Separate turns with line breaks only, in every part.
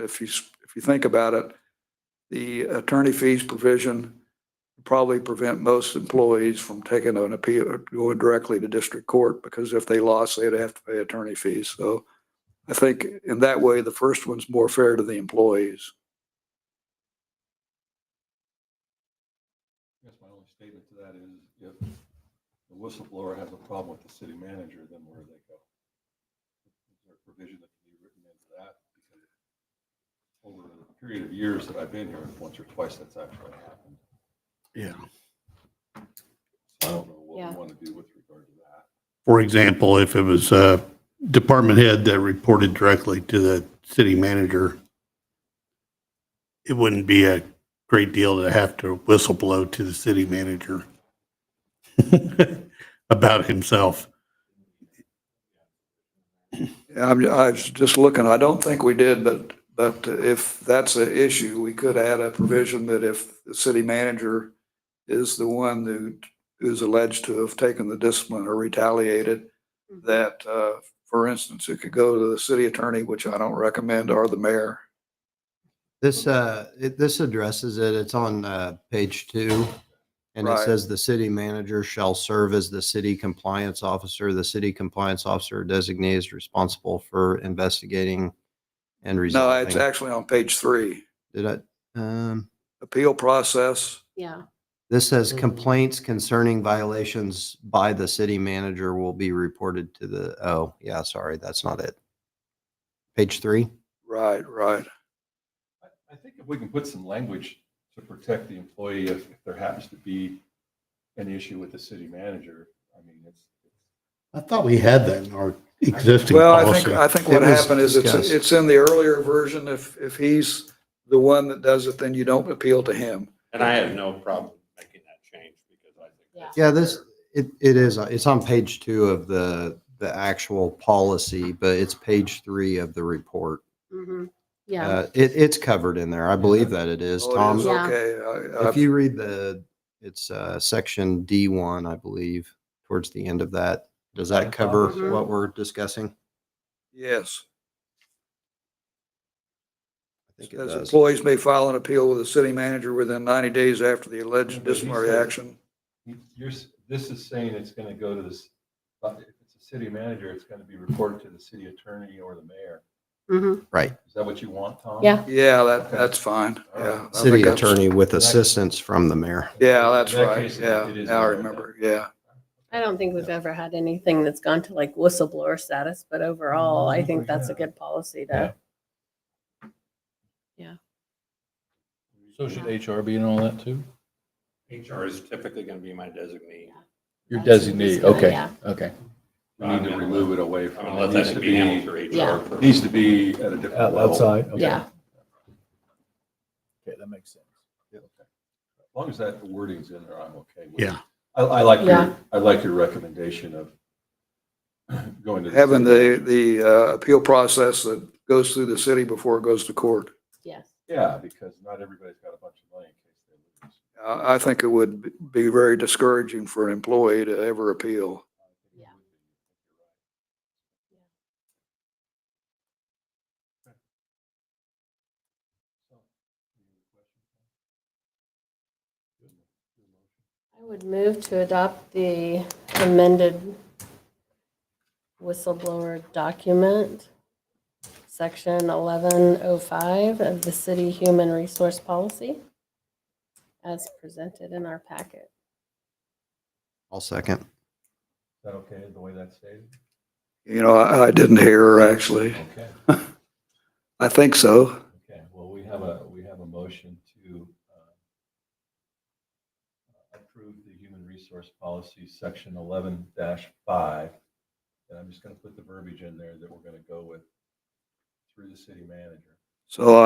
if you, s- if you think about it, the attorney fees provision probably prevent most employees from taking an appeal, going directly to district court, because if they lost, they'd have to pay attorney fees. So I think in that way, the first one's more fair to the employees.
I guess my only statement to that is if the whistleblower has a problem with the city manager, then where do they go? Is there a provision that can be written into that? Because Over the period of years that I've been here, once or twice that's actually happened.
Yeah.
So I don't know what
Yeah.
we want to do with regard to that.
For example, if it was a department head that reported directly to the city manager, it wouldn't be a great deal to have to whistle blow to the city manager about himself.
I'm, I was just looking, I don't think we did, but, but if that's an issue, we could add a provision that if the city manager is the one who is alleged to have taken the discipline or retaliated, that, uh, for instance, it could go to the city attorney, which I don't recommend, or the mayor.
This, uh, it, this addresses it. It's on, uh, page two. And it
Right.
says the city manager shall serve as the city compliance officer. The city compliance officer designee is responsible for investigating and
No, it's
resolving.
actually on page three,
Did I, um,
appeal process.
Yeah,
this
Mm-hmm.
says complaints concerning violations by the city manager will be reported to the, oh, yeah, sorry, that's not it. Page three?
Right, right.
I- I think if we can put some language to protect the employee if if there happens to be an issue with the city manager, I mean, it's,
I thought we had that in our existing
Well, I think,
policy.
I think what
It was
happened is it's,
discussed.
it's in the earlier version. If, if he's the one that does it, then you don't appeal to him.
And I have no problem making that change because I think. that's
Yeah, this,
fair.
it, it is, uh, it's on page two of the, the actual policy, but it's page three of the report.
mhm, yeah.
Uh, it, it's covered in there. I believe that it is,
Oh, it is? Uh,
Tom.
Yeah.
Okay. I-
If
I-
you read the, it's, uh, section D one, I believe, towards the end of that. Does that cover
Mhm.
what we're discussing?
Yes.
I think it
As
does.
employees may file an appeal with the city manager within 90 days after the alleged
But he
disciplinary
said-
action.
You're, s- this is saying it's going to go to this, but if it's a city manager, it's going to be reported to the city attorney or the mayor.
mhm.
Right.
Is that what you want, Tom?
Yeah.
Yeah, that, that's fine.
All right.
Yeah. I think
City
that's-
attorney with assistance from the mayor.
Yeah, that's
In that
right.
case, it-
Yeah.
it is
Now I
there.
remember. Yeah.
I don't think we've ever had anything that's gone to like whistleblower status, but overall, I think that's a good policy to,
So should HR be in all that too?
HR is typically going to be my designee.
Your
That's what he's
designee,
doing,
okay,
yeah.
okay.
We need to remove it away
I'm
from.
going to let
needs to
that be handled through
Yeah.
HR.
It Needs to be at a different level.
Outside?
yeah.
Okay, that makes sense.
As long as that wording's in there, I'm okay with it.
Yeah.
I, I like your,
Yeah.
I like your recommendation of going to.
Having
city
the,
manager.
the uh, appeal process that goes through the city before it goes to court.
Yes.
Yeah, because not everybody's got a bunch of money in case they lose.
I, I think it would be very discouraging for an employee to ever appeal.
Yeah. I would move to adopt the amended whistleblower document, section 1105 of the city human resource policy as presented in our packet.
I'll second.
Is that okay, the way that's stated?
You know, I, I didn't hear her actually.
Okay.
I think so.
Okay, well, we have a, we have a motion to uh, approve the human resource policy, section eleven five. And I'm just going to put the verbiage in there that we're going to go with through the city manager.
So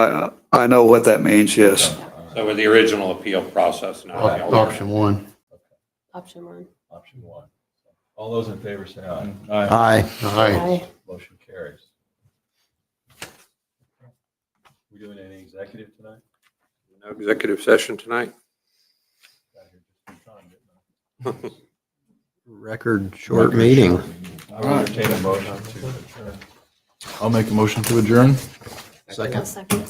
I, I know what that means, yes.
All right,
So with the original appeal process
Oh,
now. the alternate.
Option one.
Option one.
Option one. All those in favor say aye.
Aye.
Aye.
Aye.
Motion carries. We doing any executive tonight?
No executive session tonight.
Got here just in time, didn't I?
Record short meeting.
I will entertain a motion to adjourn.
I'll make a motion to adjourn.
Second.
second.